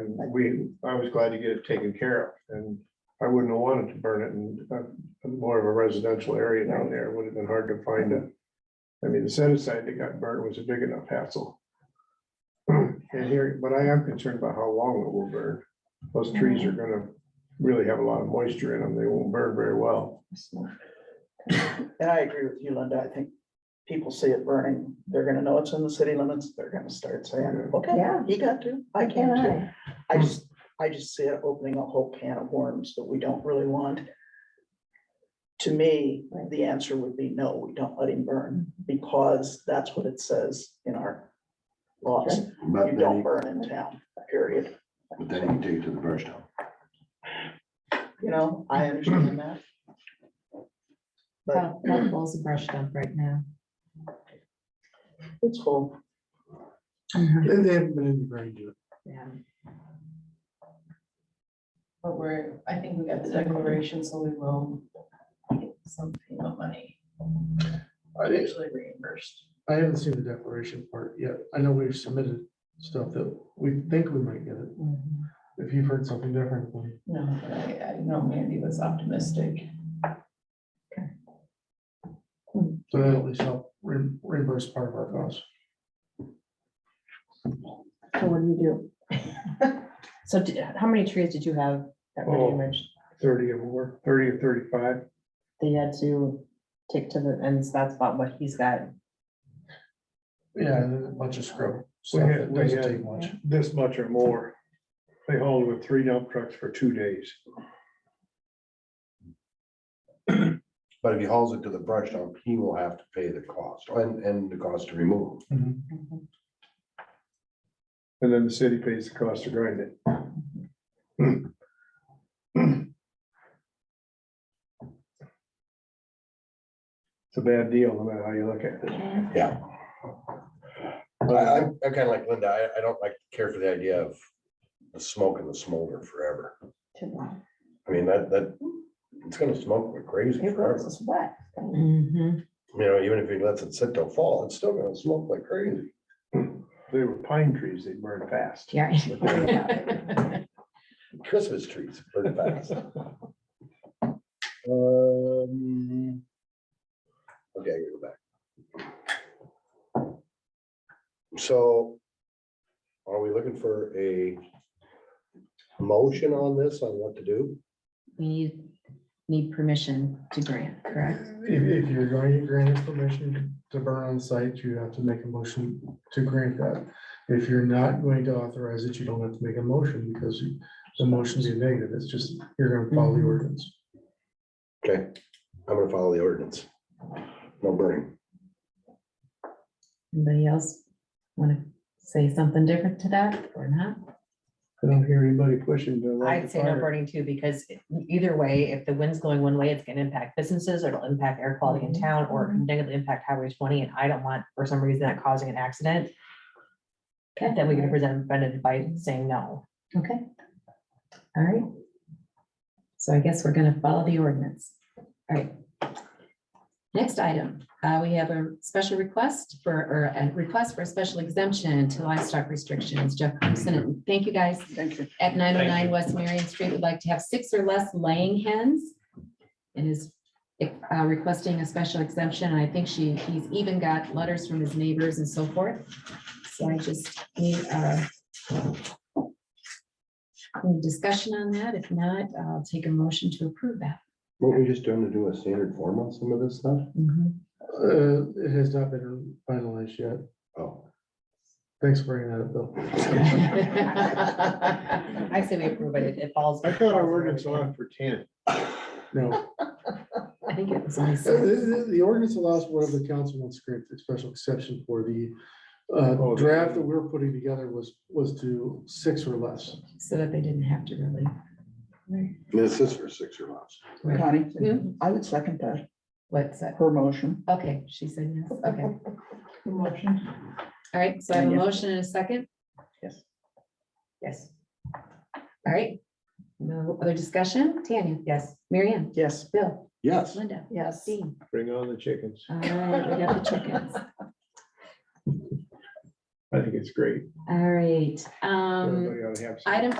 And we, I was glad to get it taken care of and I wouldn't have wanted to burn it in uh, more of a residential area down there. It Would have been hard to find a. I mean, the set aside that got burned was a big enough hassle. And here, but I am concerned about how long it will burn. Those trees are gonna really have a lot of moisture in them. They won't burn very well. And I agree with you, Linda. I think people see it burning. They're gonna know it's in the city limits. They're gonna start saying, okay, Yeah. he got to, I can too. Yeah. I just, I just see it opening a whole can of worms that we don't really want. To me, Right. the answer would be no, we don't let him burn because that's what it says in our laws. But You then, don't you- burn in town, period. but then you can take it to the brush dump. You know, I understand that. But How how full's the brush dump right now? it's full. Uh-huh. They they haven't been in the ground yet. Yeah. But we're, I think we got the declaration, so we will get some payment money, I didn't- usually reimbursed. I haven't seen the declaration part yet. I know we've submitted stuff that we think we might get it. Mhm. If you've heard something different, then No, but I, I know Mandy was optimistic. so that'll at least help re- reimburse part of our costs. So what do you do? So did- how many trees did you have that were Oh. damaged? Thirty or more, thirty or thirty-five. That you had to take to the, and that's about what he's got. Yeah, and then a bunch of scrub. We stuff had, that we doesn't had take much. this much or more. They hauled with three dump trucks for two days. But if he hauls it to the brush dump, he will have to pay the cost and, and the cost to remove. Mm-hmm. Mhm. Mm-hmm. And then the city pays the cost to grind it. It's a bad deal, no matter how you look at it. Yeah. I, I'm, I'm kind of like Linda. I, I don't like, care for the idea of the smoke and the smolder forever. It I mean, that, that, it's gonna smoke like crazy was forever. us wet. Mhm. You know, even if he lets it sit till fall, it's still gonna smoke like crazy. They were pine trees, they burn fast. Yeah. Christmas trees, pretty fast. Um, Okay, I gotta go back. So are we looking for a motion on this, on what to do? We need, need permission to grant, correct? If, if you're going to grant it permission to burn on site, you have to make a motion to grant that. If you're not going to authorize it, you don't have to make a motion because you- the motion's a negative. It's just, you're gonna follow the ordinance. Okay, I'm gonna follow the ordinance. No burning. Anybody else want to say something different to that or not? I don't hear anybody pushing to. light the I'd say no fire. burning too, because e, either way, if the wind's going one way, it's gonna impact businesses, or it'll impact air quality in town, or it can negatively impact highway twenty, and I don't want, for some reason, that causing an accident. Okay. Then we can present, prevented by saying no. Okay. All right. So I guess we're gonna follow the ordinance. All right. Next item, uh, we have a special request for, or a request for a special exemption to livestock restrictions. Jeff Crimson, and thank you guys. Thank you. At nine oh nine West Marion Street, would like to have six or less laying hens. And is uh, requesting a special exemption. And I think she, he's even got letters from his neighbors and so forth. So I just need uh, any discussion on that. If not, I'll take a motion to approve that. Weren't we just doing to do a standard form on some of this stuff? Uh, it has not been finalized yet. Oh. Thanks for bringing that up, Bill. I say we approve it, it falls. I thought our ordinance on for ten. No, I think it was only the, six. the- Uh, the ordinance allows whatever the council wants to grant a special exception for the uh, Oh, the- draft that we were putting together was, was to six or less. so that they didn't have to really. This is for six or less. Connie, Hmm? I would second that, What's that? her motion. Okay, she said yes. Okay. All Motion. right. So I have a Yeah. motion and a second. Yes. Yes, All right. No other discussion? Tanya? yes. Marianne, Yes. Bill? Yes. Linda? Yes. Dean? Bring on the chickens. All right, we got the chickens. I think it's great. All right, um, Everybody ought to have some. item